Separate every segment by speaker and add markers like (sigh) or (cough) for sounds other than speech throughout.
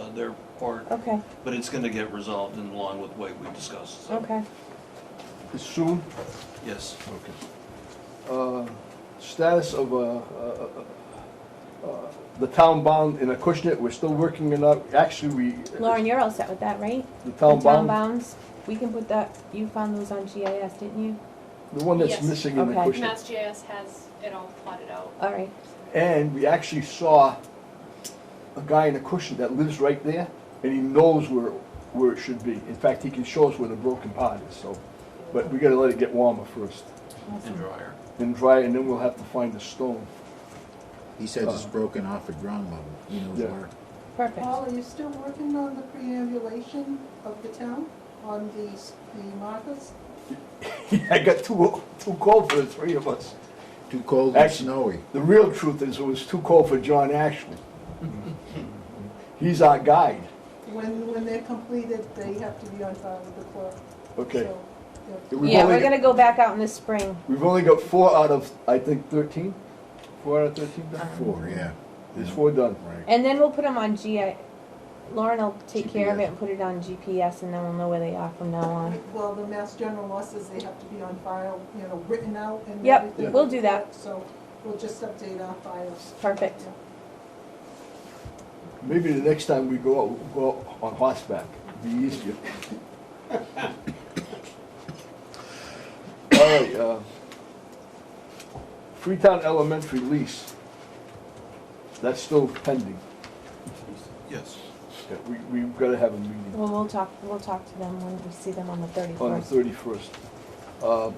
Speaker 1: uh, their part,
Speaker 2: Okay,
Speaker 1: but it's gonna get resolved in along with what we discussed, so,
Speaker 2: okay.
Speaker 3: It's soon?
Speaker 1: yes.
Speaker 3: Okay. Uh, Status of uh, uh, uh, uh, the town bond in Acushnet, we're still working it out. Actually, we.
Speaker 2: Lauren, you're all set with that, right?
Speaker 3: The town
Speaker 2: The town
Speaker 3: bond,
Speaker 2: bounds, we can put that, you found those on GIS, didn't you?
Speaker 3: the one that's
Speaker 4: Yes.
Speaker 3: missing in
Speaker 2: Okay.
Speaker 3: Acushnet.
Speaker 4: Mass GIS has it all plotted out.
Speaker 2: All right,
Speaker 3: And we actually saw a guy in Acushnet that lives right there, and he knows where, where it should be. In fact, he can show us where the broken pot is, so. But we gotta let it get warmer first,
Speaker 1: And dryer.
Speaker 3: and dry, and then we'll have to find the stone. (laughs)
Speaker 5: He says it's broken off at ground level, he knows
Speaker 3: Yeah.
Speaker 5: where.
Speaker 2: perfect.
Speaker 6: Paul, are you still working on the preambulation of the town, on the, s- the markers?
Speaker 3: I got too, too cold for the three of us.
Speaker 5: Too cold and
Speaker 3: Actually-
Speaker 5: snowy.
Speaker 3: The real truth is it was too cold for John Ashley. He's our guide,
Speaker 6: When, when they're completed, they have to be on file with the clerk.
Speaker 3: okay?
Speaker 6: So, yeah.
Speaker 3: We've
Speaker 2: Yeah,
Speaker 3: only-
Speaker 2: we're gonna go back out in the spring.
Speaker 3: We've only got four out of, I think, thirteen? Four out of thirteen? done?
Speaker 5: Four, yeah.
Speaker 3: There's four done.
Speaker 5: Right.
Speaker 2: And then we'll put them on GI, Lauren will take care of it
Speaker 5: GPS.
Speaker 2: and put it on GPS and then we'll know where they are from now on.
Speaker 6: Well, the Mass General law says they have to be on file, you know, written out and
Speaker 2: Yep,
Speaker 6: everything.
Speaker 2: we'll do that.
Speaker 6: So we'll just update our files.
Speaker 2: Perfect.
Speaker 3: Maybe the next time we go out, we'll go out on horseback, It'd be easier. All right, uh, Freetown Elementary lease. That's still pending.
Speaker 1: Yes.
Speaker 3: Yeah, We, we've gotta have a meeting.
Speaker 2: Well, we'll talk, we'll talk to them when we see them on the
Speaker 3: on the
Speaker 2: thirty-first.
Speaker 3: thirty-first. Uh,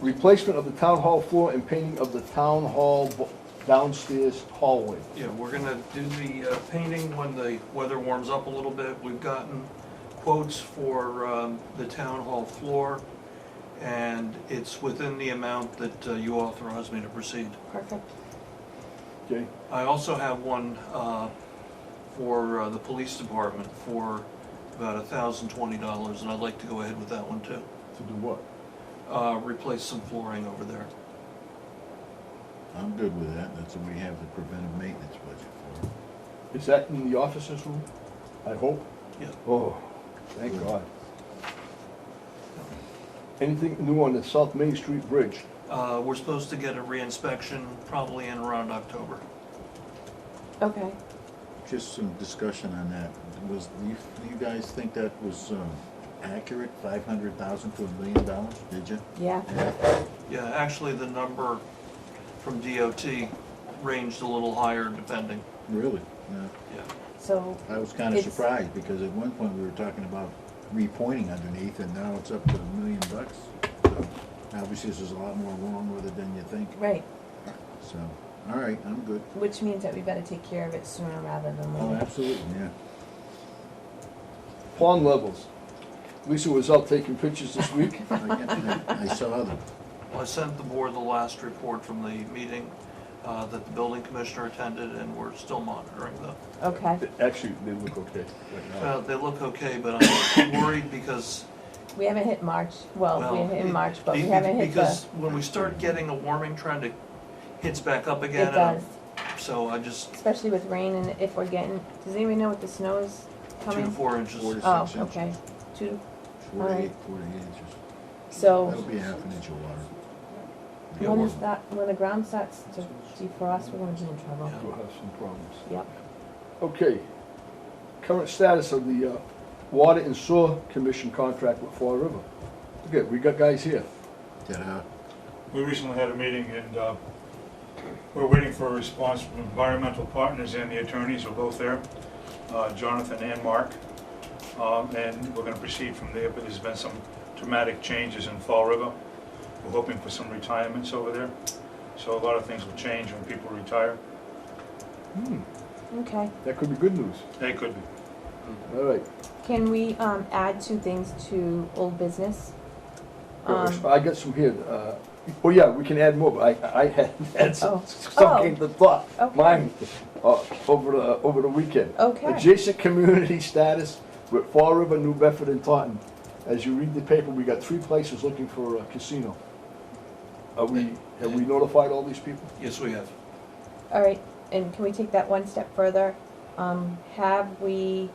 Speaker 3: Replacement of the town hall floor and painting of the town hall bo- downstairs hallway.
Speaker 1: Yeah, we're gonna do the uh, painting when the weather warms up a little bit. We've gotten quotes for um, the town hall floor, and it's within the amount that uh, you authorized me to proceed.
Speaker 2: Perfect.
Speaker 3: Okay,
Speaker 1: I also have one uh, for uh, the police department for about $1,020, and I'd like to go ahead with that one too.
Speaker 3: to do what?
Speaker 1: Uh, Replace some flooring over there.
Speaker 5: I'm good with that, that's what we have the preventive maintenance budget
Speaker 3: Is that in the officers' room? I hope.
Speaker 1: Yeah.
Speaker 3: Oh, thank God. Anything new on the South Main Street Bridge?
Speaker 1: Uh, We're supposed to get a reinspection probably in around October.
Speaker 2: Okay,
Speaker 5: for. Just some discussion on that, was, you, you guys think that was, um, accurate, five hundred thousand to a million dollars, did you?
Speaker 2: yeah,
Speaker 1: Yeah, actually, the number from DOT ranged a little higher depending,
Speaker 5: Really? Yeah.
Speaker 1: yeah.
Speaker 2: so,
Speaker 5: I was kinda
Speaker 2: It's-
Speaker 5: surprised, because at one point we were talking about repointing underneath, and now it's up to a million bucks. So, Obviously, there's a lot more wrong with it than you think,
Speaker 2: right,
Speaker 5: so, all right, I'm good.
Speaker 2: which means that we better take care of it sooner rather than
Speaker 5: Oh,
Speaker 2: later.
Speaker 5: absolutely, yeah.
Speaker 3: Pond levels. Lisa was out taking pictures this week.
Speaker 5: I I saw them.
Speaker 1: Well, I sent the board the last report from the meeting uh, that the building commissioner attended, and we're still monitoring them.
Speaker 2: Okay,
Speaker 3: Actually, they look okay right now.
Speaker 1: Uh, They look okay, but I'm worried because,
Speaker 2: we haven't hit March, well,
Speaker 1: well...
Speaker 2: we're in March, but we
Speaker 1: be-
Speaker 2: haven't hit
Speaker 1: Because
Speaker 2: the,
Speaker 1: when we start getting a warming trend, it hits back up again.
Speaker 2: it
Speaker 1: and I'm-
Speaker 2: does,
Speaker 1: So I just,
Speaker 2: especially with rain and if we're getting, does anybody know what the snow is
Speaker 1: two to
Speaker 2: coming?
Speaker 1: four inches.
Speaker 5: Four to
Speaker 2: Oh,
Speaker 5: six inches.
Speaker 2: okay, two,
Speaker 5: Four to
Speaker 2: Alright.
Speaker 5: eight, four to eight inches. That'll
Speaker 2: so,
Speaker 5: be a half an inch of water.
Speaker 1: Yeah,
Speaker 2: when
Speaker 1: we're-
Speaker 2: is that, when the ground starts to defrost, we're gonna be in trouble.
Speaker 1: Yeah.
Speaker 3: We'll have some problems.
Speaker 2: Yep,
Speaker 3: Okay. Current status of the uh, Water and Sewer Commission contract with Fall River. Okay, we got guys here.
Speaker 5: Ta-da.
Speaker 7: We recently had a meeting and uh, we're waiting for a response from environmental partners and the attorneys are both there, uh, Jonathan and Mark. Um, And we're going to proceed from there, but there's been some dramatic changes in Fall River. We're hoping for some retirements over there. So a lot of things will change when people retire.
Speaker 3: Hmm,
Speaker 2: okay.
Speaker 3: that could be good news.
Speaker 7: They could,
Speaker 3: All right.
Speaker 2: Can we, um, add two things to old business? Um,
Speaker 3: I got some here. uh, Oh, yeah, we can add more, but I, I had, (laughs) had
Speaker 2: Oh.
Speaker 3: some, some came to thought.
Speaker 2: Okay.
Speaker 3: Mine, uh, over the, over the weekend.
Speaker 2: okay,
Speaker 3: Adjacent community status with Fall River, New Bedford, and Taunton. As you read the paper, we got three places looking for a casino. Are we, have we notified all these people?
Speaker 1: Yes, we have.
Speaker 2: all right, and can we take that one step further? Um, have we